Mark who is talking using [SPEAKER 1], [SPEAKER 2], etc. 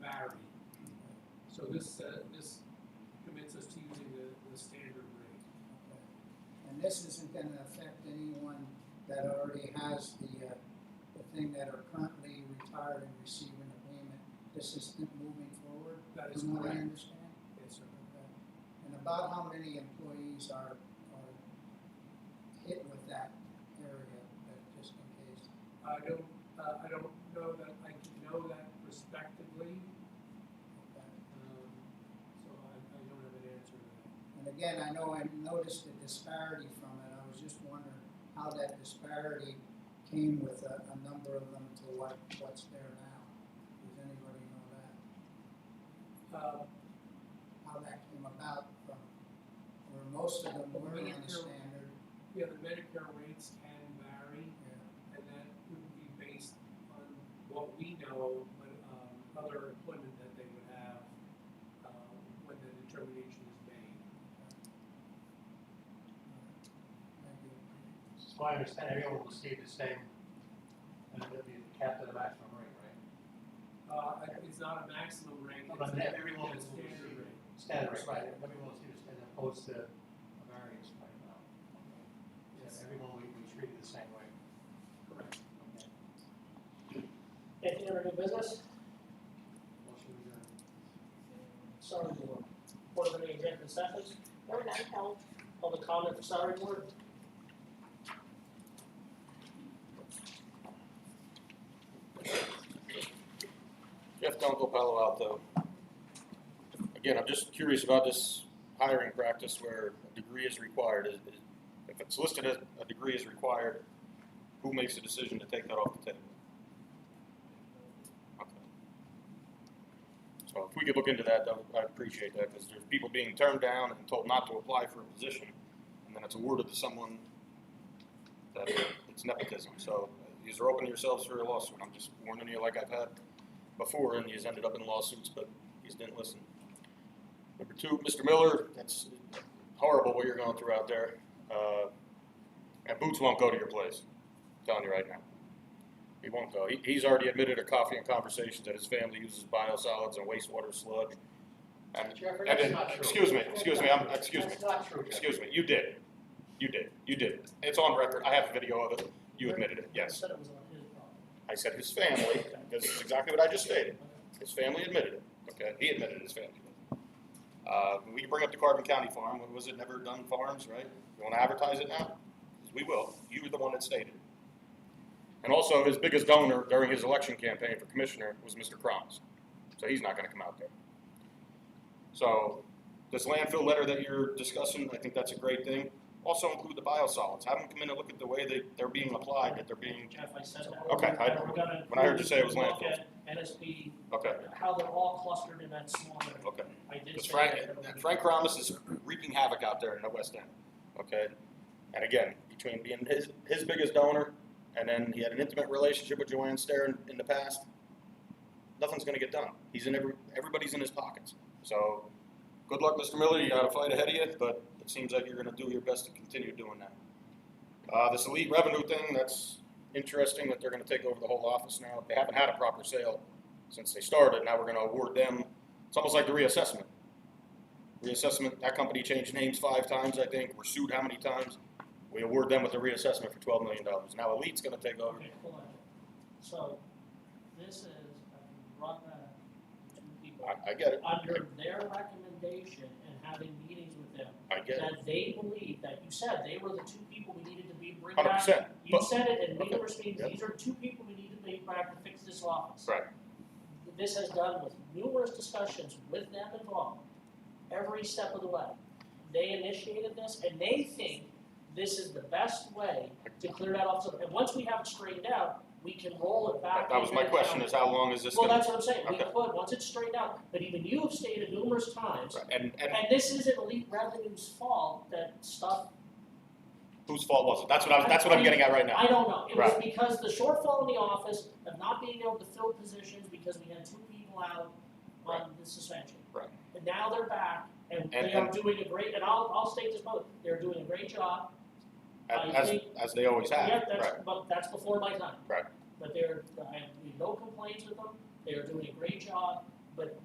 [SPEAKER 1] So this, uh, this commits us to using the, the standard rate.
[SPEAKER 2] Okay. And this isn't gonna affect anyone that already has the, uh, the thing that are currently retired and receiving a payment. This is moving forward,
[SPEAKER 1] That is
[SPEAKER 2] from what I
[SPEAKER 1] correct.
[SPEAKER 2] understand?
[SPEAKER 1] Yes, sir.
[SPEAKER 2] Okay. And about how many employees are, are hit with that area, uh, just in case?
[SPEAKER 1] I don't, uh, I don't know that, I can know that prospectively,
[SPEAKER 2] Okay.
[SPEAKER 1] um, so I, I don't have an answer to that.
[SPEAKER 2] And again, I know I noticed the disparity from it, I was just wondering how that disparity came with a, a number of them to what, what's there now. Does anybody know that?
[SPEAKER 1] Uh,
[SPEAKER 2] How that came about from, where most of them were on the standard,
[SPEAKER 1] yeah, the Medicare rates can vary,
[SPEAKER 2] yeah,
[SPEAKER 1] and that would be based on what we know, but, um, other employment that they would have, um, when the determination is made.
[SPEAKER 2] maybe,
[SPEAKER 3] So I understand everyone will receive the same, and it'll be capped at a maximum rate, right?
[SPEAKER 1] Uh, it's not a maximum rate,
[SPEAKER 3] But
[SPEAKER 1] it's
[SPEAKER 3] that
[SPEAKER 1] a
[SPEAKER 3] everyone
[SPEAKER 1] it's a
[SPEAKER 3] is-
[SPEAKER 1] standard rate.
[SPEAKER 3] Standard rate, right, everyone will receive the same, as opposed to a variance right now. Yes, everyone will be treated the same way.
[SPEAKER 1] Correct.
[SPEAKER 3] Okay.
[SPEAKER 4] Anything under new business?
[SPEAKER 3] Motion adjourned.
[SPEAKER 4] Salary board. Board of any executive sessions? There were none held. Public comment for salary board?
[SPEAKER 5] Jeff Dunkel, Palo Alto. Again, I'm just curious about this hiring practice where a degree is required. Is- is- If it's listed as a degree is required, who makes the decision to take that off the table? Okay. So if we could look into that, that would- I'd appreciate that, because there's people being turned down and told not to apply for a position, and then it's awarded to someone that it's nepotism. So these are opening yourselves for a lawsuit. I'm just warning you like I've had before, and he's ended up in lawsuits, but he's didn't listen. Number two, Mr. Miller, that's horrible what you're going through out there. Uh, and Boots won't go to your place. I'm telling you right now. He won't go. He, he's already admitted to coffee and conversations that his family uses biosolids and wastewater sludge. And,
[SPEAKER 3] Jeffrey,
[SPEAKER 5] and
[SPEAKER 3] that's
[SPEAKER 5] then,
[SPEAKER 3] not true.
[SPEAKER 5] excuse me,
[SPEAKER 3] That's
[SPEAKER 5] excuse
[SPEAKER 3] not
[SPEAKER 5] me, I'm,
[SPEAKER 3] true.
[SPEAKER 5] excuse me.
[SPEAKER 3] That's not true, Jeffrey.
[SPEAKER 5] Excuse me, you did. You did. You did. It's on record. I have a video of it. You admitted it, yes.
[SPEAKER 4] Said it was on his problem.
[SPEAKER 5] I said his family, this is exactly what I just stated. His family admitted it, okay? He admitted his family. did. Uh, we can bring up the Carbon County farm, what was it, Never Done Farms, right? You wanna advertise it now? We will. You were the one that stated. it. And also, his biggest donor during his election campaign for commissioner was Mr. Crumbs. So he's not gonna come out there. So, this landfill letter that you're discussing, I think that's a great thing. Also include the biosolids. Have them come in and look at the way they, they're being applied, that they're being,
[SPEAKER 4] Jeff, I said that.
[SPEAKER 5] Okay, I-
[SPEAKER 4] We're gonna-
[SPEAKER 5] when I heard you say it was
[SPEAKER 4] look
[SPEAKER 5] landfills.
[SPEAKER 4] at NSP,
[SPEAKER 5] okay,
[SPEAKER 4] how they're all clustered in that small area.
[SPEAKER 5] okay.
[SPEAKER 4] I did
[SPEAKER 5] Because
[SPEAKER 4] say
[SPEAKER 5] Oh, Frank,
[SPEAKER 4] that.
[SPEAKER 5] that Frank Ramos is wreaking havoc out there in the West End. Okay, and again, between being his his biggest donor, and then he had an intimate relationship with Joanne Stair in, in the past. Nothing's going to get done. He's in every everybody's in his pockets. So, good luck, Mr. Miller. You got a fight ahead of you, but it seems like you're going to do your best to continue doing that. Uh, this elite revenue thing—that's interesting that they're going to take over the whole office now. They haven't had a proper sale since they started. Now we're going to award them. It's almost like the reassessment reassessment, that company changed names five times, I think, we're sued how many times? We award them with a reassessment for twelve million dollars. Now Elite's gonna take over.
[SPEAKER 4] Okay, hold on. So, this is, I brought that to people.
[SPEAKER 5] I, I get it,
[SPEAKER 4] Under their recommendation and having meetings with them,
[SPEAKER 5] I get it,
[SPEAKER 4] that they believe, that you said, they were the two people we needed to be bring
[SPEAKER 5] hundred
[SPEAKER 4] back.
[SPEAKER 5] percent.
[SPEAKER 4] You
[SPEAKER 5] But,
[SPEAKER 4] said it in
[SPEAKER 5] okay,
[SPEAKER 4] numerous meetings,
[SPEAKER 5] yeah.
[SPEAKER 4] these are two people we need to bring back to fix this office.
[SPEAKER 5] right,
[SPEAKER 4] This has done with numerous discussions with them involved, every step of the way. They initiated this and they think this is the best way to clear that off. And once we have it straightened out, we can roll it back.
[SPEAKER 5] that, that was
[SPEAKER 4] into
[SPEAKER 5] my
[SPEAKER 4] the
[SPEAKER 5] question,
[SPEAKER 4] county.
[SPEAKER 5] is how long is this
[SPEAKER 4] Well,
[SPEAKER 5] gonna?
[SPEAKER 4] that's what I'm saying, we
[SPEAKER 5] Okay.
[SPEAKER 4] could, once it's straightened out, but even you have stated numerous times,
[SPEAKER 5] Right, And, and
[SPEAKER 4] and this isn't elite revenue's fault that stuff
[SPEAKER 5] whose fault was it? That's what I, was- that's what I'm getting at right now.
[SPEAKER 4] I don't know, it was
[SPEAKER 5] Right.
[SPEAKER 4] because the shortfall in the office of not being able to fill positions because we had two people out on the suspension.
[SPEAKER 5] Right.
[SPEAKER 4] And now they're back, and
[SPEAKER 5] And-
[SPEAKER 4] they are
[SPEAKER 5] and-
[SPEAKER 4] doing a great, and I'll, I'll state this public, they're doing a great job. I
[SPEAKER 5] As,
[SPEAKER 4] think-
[SPEAKER 5] as they always have,
[SPEAKER 4] Yeah,
[SPEAKER 5] Oh, right,
[SPEAKER 4] that's, but that's before my time.
[SPEAKER 5] Right.
[SPEAKER 4] But they're, I have no complaints with them, they are doing a great job, but